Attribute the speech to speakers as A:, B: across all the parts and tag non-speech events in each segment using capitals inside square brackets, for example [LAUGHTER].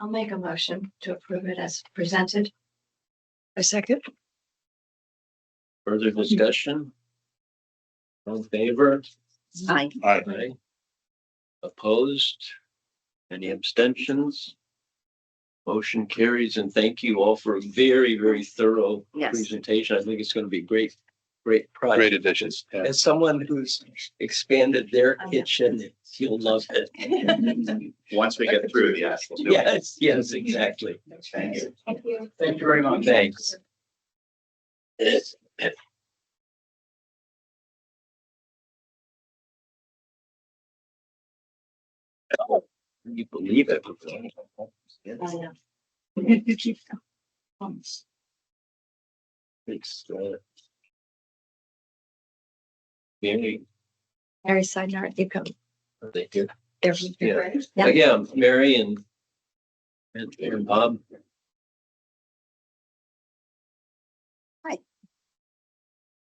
A: I'll make a motion to approve it as presented.
B: A second?
C: Further discussion? All in favor?
B: Aye.
D: Aye.
C: Aye. Opposed? Any abstentions? Motion carries and thank you all for a very, very thorough
B: Yes.
C: presentation. I think it's going to be a great, great project.
D: Great additions. yeah.
C: As someone who's expanded their
A: I know.
C: kitchen, you'll love it.
E: Once we get through the actual. doing.
C: Yes, yes, exactly.
E: Thank you.
A: Thank you.
E: Thank you very much.
C: Thanks. Can You believe it?
A: I know.
C: It's, uh, Mary,
B: Mary Sidnar, you come.
C: are they here?
B: They're
C: Yeah.
A: Great.
B: Yeah.
C: Yeah, Mary and and and Bob.
B: Hi.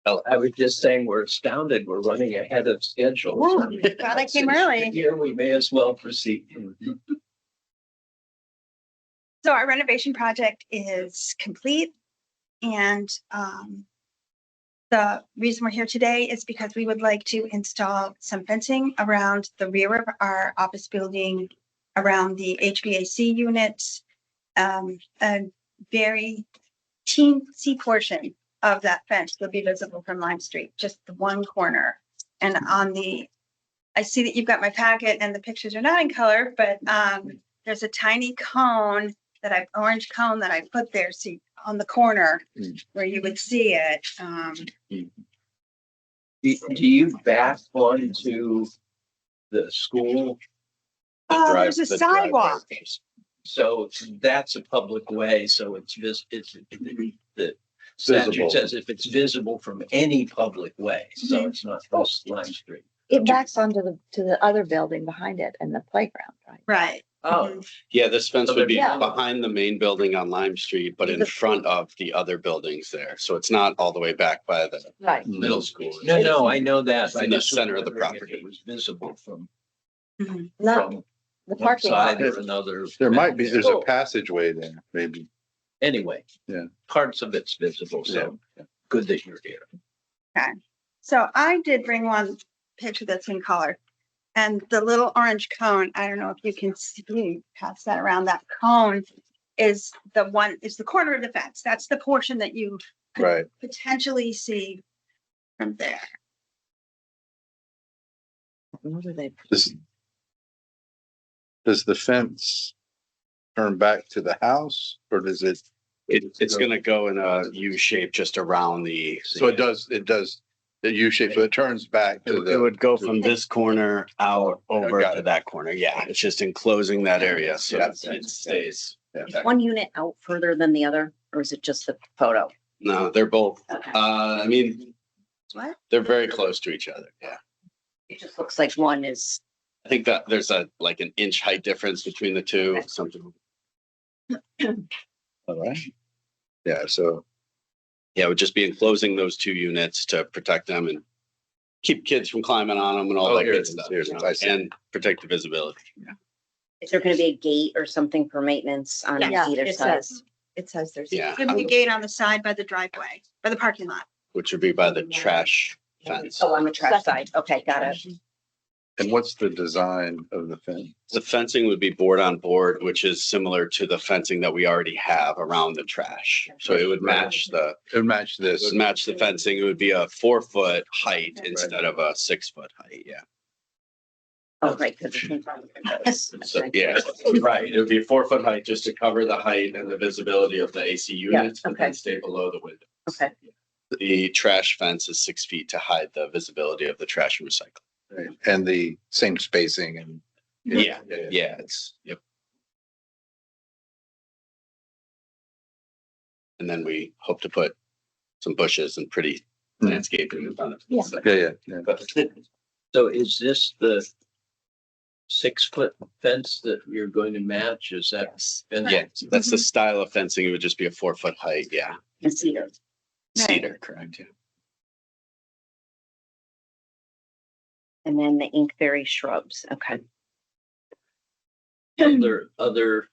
C: Oh, I was just saying, we're astounded. We're running ahead of schedule.
B: Whoa, glad I came early.
C: Here, we may as well proceed.
F: So our renovation project is complete and um. The reason we're here today is because we would like to install some fencing around the rear of our office building. Around the HVAC units, um, a very teensy portion of that fence will be visible from Lime Street, just the one corner. And on the, I see that you've got my packet and the pictures are not in color, but um, there's a tiny cone that I, orange cone that I put there, see, on the corner
C: Mm.
F: where you would see it. Um,
C: Do do you back onto the school?
F: oh,
D: drive-
F: there's a
D: the driveway.
F: sidewalk.
C: So that's a public way, so it's vis, it's, the statute
D: Visible.
C: says if it's visible from any public way, so
B: Mhm.
C: it's not just Lime Street.
B: It backs onto the, to the other building behind it and the playground, right?
F: Right.
C: Oh,
F: Mhm.
D: Yeah, this fence would be
B: Yeah.
D: behind the main building on Lime Street, but in front of the other buildings there. So it's not all the way back by the
B: Right.
D: middle school.
C: no, no, I know that. I
D: In the
C: just was
D: center of the
C: wondering if
D: property.
C: It was visible from,
F: Mhm.
B: Not
C: from
B: the
C: one
B: parking lot.
C: side or another.
G: There might be, there's a
B: Cool.
G: passageway there, maybe.
C: Anyway.
G: Yeah.
C: Parts of it's visible, so good that you're here.
F: So I did bring one picture that's in color. And the little orange cone, I don't know if you can see, pass that around, that cone is the one, is the corner of the fence. That's the portion that you
G: Right.
F: potentially see from there.
B: What are they?
G: Does, does the fence turn back to the house or does it?
D: It, it's gonna go in a U shape just around the,
G: So it does, it does, the U shape, so it turns back
D: it
G: to
D: would- it
G: the,
D: would go from this corner out over
G: Oh, got
D: to
G: it.
D: that corner. Yeah, it's just enclosing that area. So
G: Yeah.
D: it stays.
B: One unit out further than the other, or is it just the photo?
D: No, they're both,
B: Okay.
D: uh, I mean,
F: What?
D: they're very close to each other. Yeah.
B: It just looks like one is,
D: I think that there's a, like an inch height difference between the two, something.
F: [CLEARS THROAT]
G: all right? Yeah, so
D: Yeah, it would just be enclosing those two units to protect them and keep kids from climbing on them and all
G: Oh,
D: that
G: here it
D: good
G: is,
D: stuff.
G: here it
D: you
G: is,
D: know,
G: I see.
D: And protect the visibility.
H: Is there gonna be a gate or something for maintenance on
B: yeah,
H: either
B: it
H: side?
B: says, it says there's.
D: Yeah,
F: There'd be a gate on the side by the driveway, by the parking lot.
D: which would be by the trash fence.
H: Oh, on the trash side. Okay, got it.
G: and what's the design of the fence?
D: The fencing would be board on board, which is similar to the fencing that we already have around the trash. So it would match the,
G: It would match
D: it
G: this.
D: would match the fencing. It would be a four foot height instead of a six foot height. Yeah.
H: Oh, right, because it's in front of the house.
D: So, yeah, right. It would be a four foot height just to cover the height and the visibility of the AC units, but then
H: okay.
D: stay below the window.
H: Okay,
D: The trash fence is six feet to hide the visibility of the trash and recycle.
G: right? And the same spacing and.
D: Yeah, yeah, it's, yep. And then we hope to put some bushes and pretty
G: Hmm.
D: landscaping in front of
B: Yeah.
D: it. So-
G: Yeah, yeah, yeah.
C: So is this the six foot fence that you're going to match? Is that? fence-
D: Yeah, that's the style of fencing. It would just be a four foot height, yeah.
H: and cedar.
F: Right.
D: Cedar, correct, yeah.
H: And then the inkberry shrubs. Okay.
C: Other, other